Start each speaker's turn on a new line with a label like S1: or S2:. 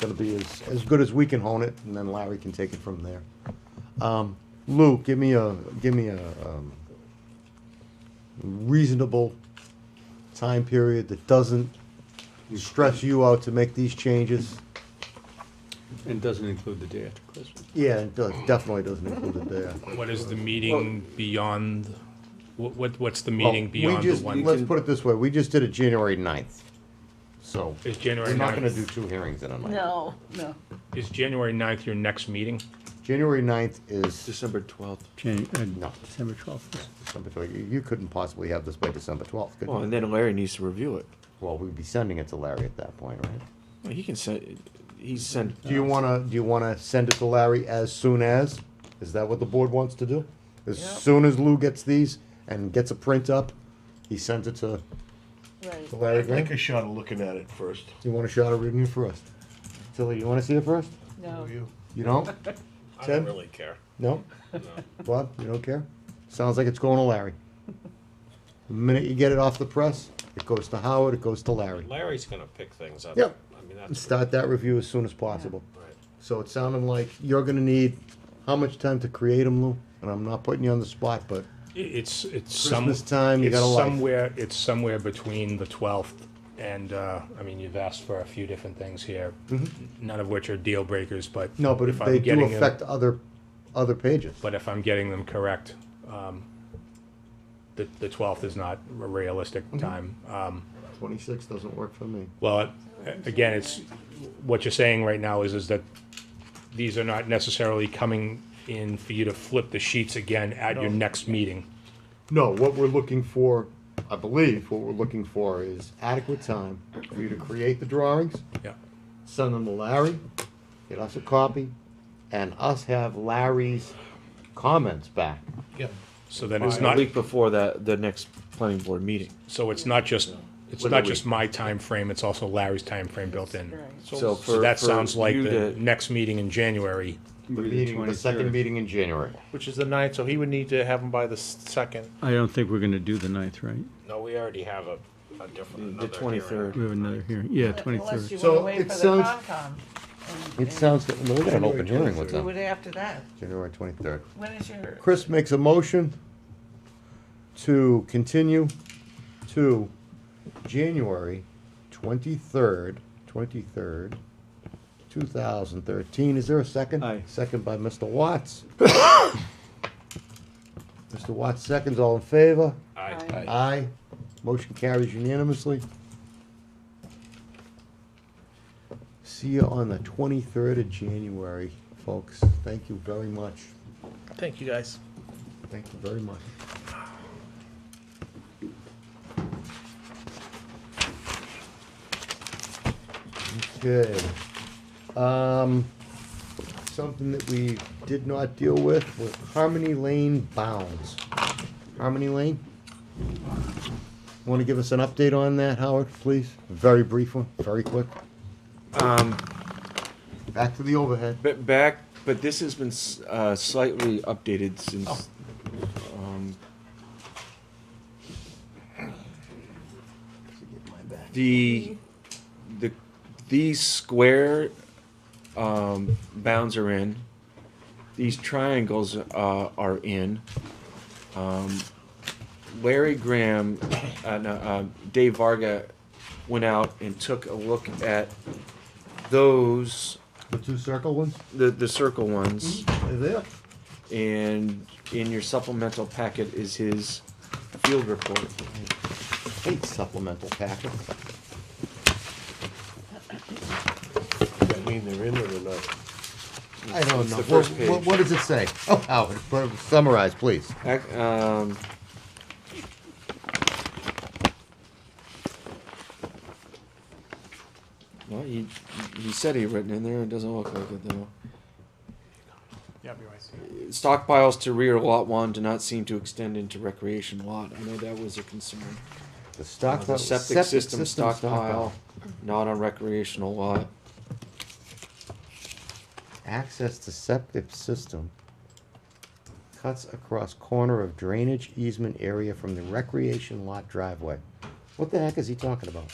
S1: Gonna be as, as good as we can hone it, and then Larry can take it from there. Um, Lou, give me a, give me a, um, reasonable time period that doesn't stress you out to make these changes.
S2: And doesn't include the day after Christmas.
S1: Yeah, it does, definitely doesn't include it there.
S3: What is the meeting beyond, what, what, what's the meeting
S1: Well, we
S3: beyond the
S1: just- Let's
S3: one?
S1: put it this way, we just did it January ninth, so
S3: Is
S1: we're
S3: January
S1: not gonna do
S3: ninth,
S1: two hearings in a month.
S4: No, no.
S3: is January ninth your next meeting?
S1: January ninth is,
S5: December twelfth.
S2: Jan- uh,
S1: No.
S2: December twelfth.
S1: December 12th. You- you couldn't possibly have this by December twelfth, could
S5: Well,
S1: you?
S5: and then Larry needs to review it.
S1: Well, we'd be sending it to Larry at that point, right?
S5: Well, He can send, he's sent.
S1: Do you wanna, do you wanna send it to Larry as soon as? Is that what the board wants to do? As
S4: Yep.
S1: soon as Lou gets these and gets a print up, he sends it to
S4: Right.
S1: to Larry Graham?
S6: Take a shot of looking at it first.
S1: You want a shot of reading it first? Tilly, you wanna see it first?
S4: No.
S1: You don't?
S7: I
S1: Ted?
S7: don't really care.
S1: No? Bob, you don't care? Sounds like it's going to Larry. The minute you get it off the press, it goes to Howard, it goes to Larry.
S7: Larry's gonna pick things up.
S1: Yep.
S7: I mean,
S1: And
S7: that's.
S1: Start that review as soon as possible.
S7: Right.
S1: So it sounded like you're gonna need, how much time to create them, Lou? And I'm not putting you on the spot, but
S3: I- It's, it's some.
S1: Christmas time, you
S3: it's
S1: got a life.
S3: Somewhere, it's somewhere between the twelfth and, uh, I mean, you've asked for a few different things here, none of which are deal breakers, but.
S1: Mm-hmm. no, but if
S3: I'm
S1: they do
S3: getting them-
S1: affect other, other pages.
S3: But if I'm getting them correct, um, the, the twelfth is not a realistic
S1: Mm-hmm.
S3: time. Um,
S1: Twenty-six doesn't work for me.
S3: Well, it- again, it's, what you're saying right now is, is that these are not necessarily coming in for you to flip the sheets again at your next meeting.
S1: No, what we're looking for, I believe, what we're looking for is adequate time for you to create the drawings,
S3: Yeah.
S1: send them to Larry, get us a copy, and us have Larry's comments back.
S3: So then it's
S5: A
S3: not,
S5: week before that, the next planning board meeting.
S3: so it's not just, it's
S5: Within a
S3: not just my time frame. it's also Larry's time frame built in.
S4: Right.
S5: So
S3: So
S5: for.
S3: that
S5: for
S3: sounds like
S5: you
S3: the
S5: to-
S3: next meeting in January.
S1: The meeting, the second meeting in January.
S8: Which is the ninth, so he would need to have them by the s- second.
S2: I don't think we're gonna do the ninth, right?
S7: No, we already have a, a different.
S5: The
S7: another hearing.
S5: 23rd.
S2: We have another hearing, yeah,
S4: Unless you
S2: twenty-third.
S1: So
S4: wanna wait
S1: it
S4: for the
S1: sounds-
S4: Concom. and-
S1: It
S4: and
S1: sounds, good. we got an open hearing with
S4: Do it
S1: them,
S4: after that.
S1: January twenty-third.
S4: When is your?
S1: Chris makes a motion to continue to January twenty-third, twenty-third, two thousand thirteen. Is there a second?
S5: Aye.
S1: Second by Mr. Watts. Mr. Watts seconds, all in favor?
S7: Aye.
S4: Aye.
S1: Aye. Motion carries unanimously. See you on the twenty-third of January, folks. Thank you very much.
S8: Thank you, guys.
S1: Thank you very much. Okay. Um, something that we did not deal with was Harmony Lane bounds. Harmony Lane? Want to give us an update on that, Howard, please? Very brief one, very quick.
S5: Um,
S1: Back to the overhead.
S5: but back, but this has been s- uh, slightly updated since. um, The, the, these square um, bounds are in. These triangles uh, are in. Um, Larry Graham, uh, no, uh, Dave Varga went out and took a look at those
S1: The two circle ones?
S5: the the circle ones,
S1: They're there.
S5: and in your supplemental packet is his field report.
S1: Hate supplemental packets.
S6: Does that mean they're in it or not?
S1: I don't
S5: It's
S1: know.
S5: the
S1: What,
S5: first
S1: what,
S5: page.
S1: what does it say? Oh, Howard, but summarize, please.
S5: Ac- Um, well, he he said he written in there. It doesn't look like it though.
S8: Yeah, be right.
S5: Stockpiles to rear lot one do not seem to extend into recreation lot. I know that was a concern.
S1: The
S5: Uh,
S1: stock,
S5: the septic, system, stockpile, not on recreational lot.
S1: Access to septic system cuts across corner of drainage easement area from the recreation lot driveway. What the heck is he talking about?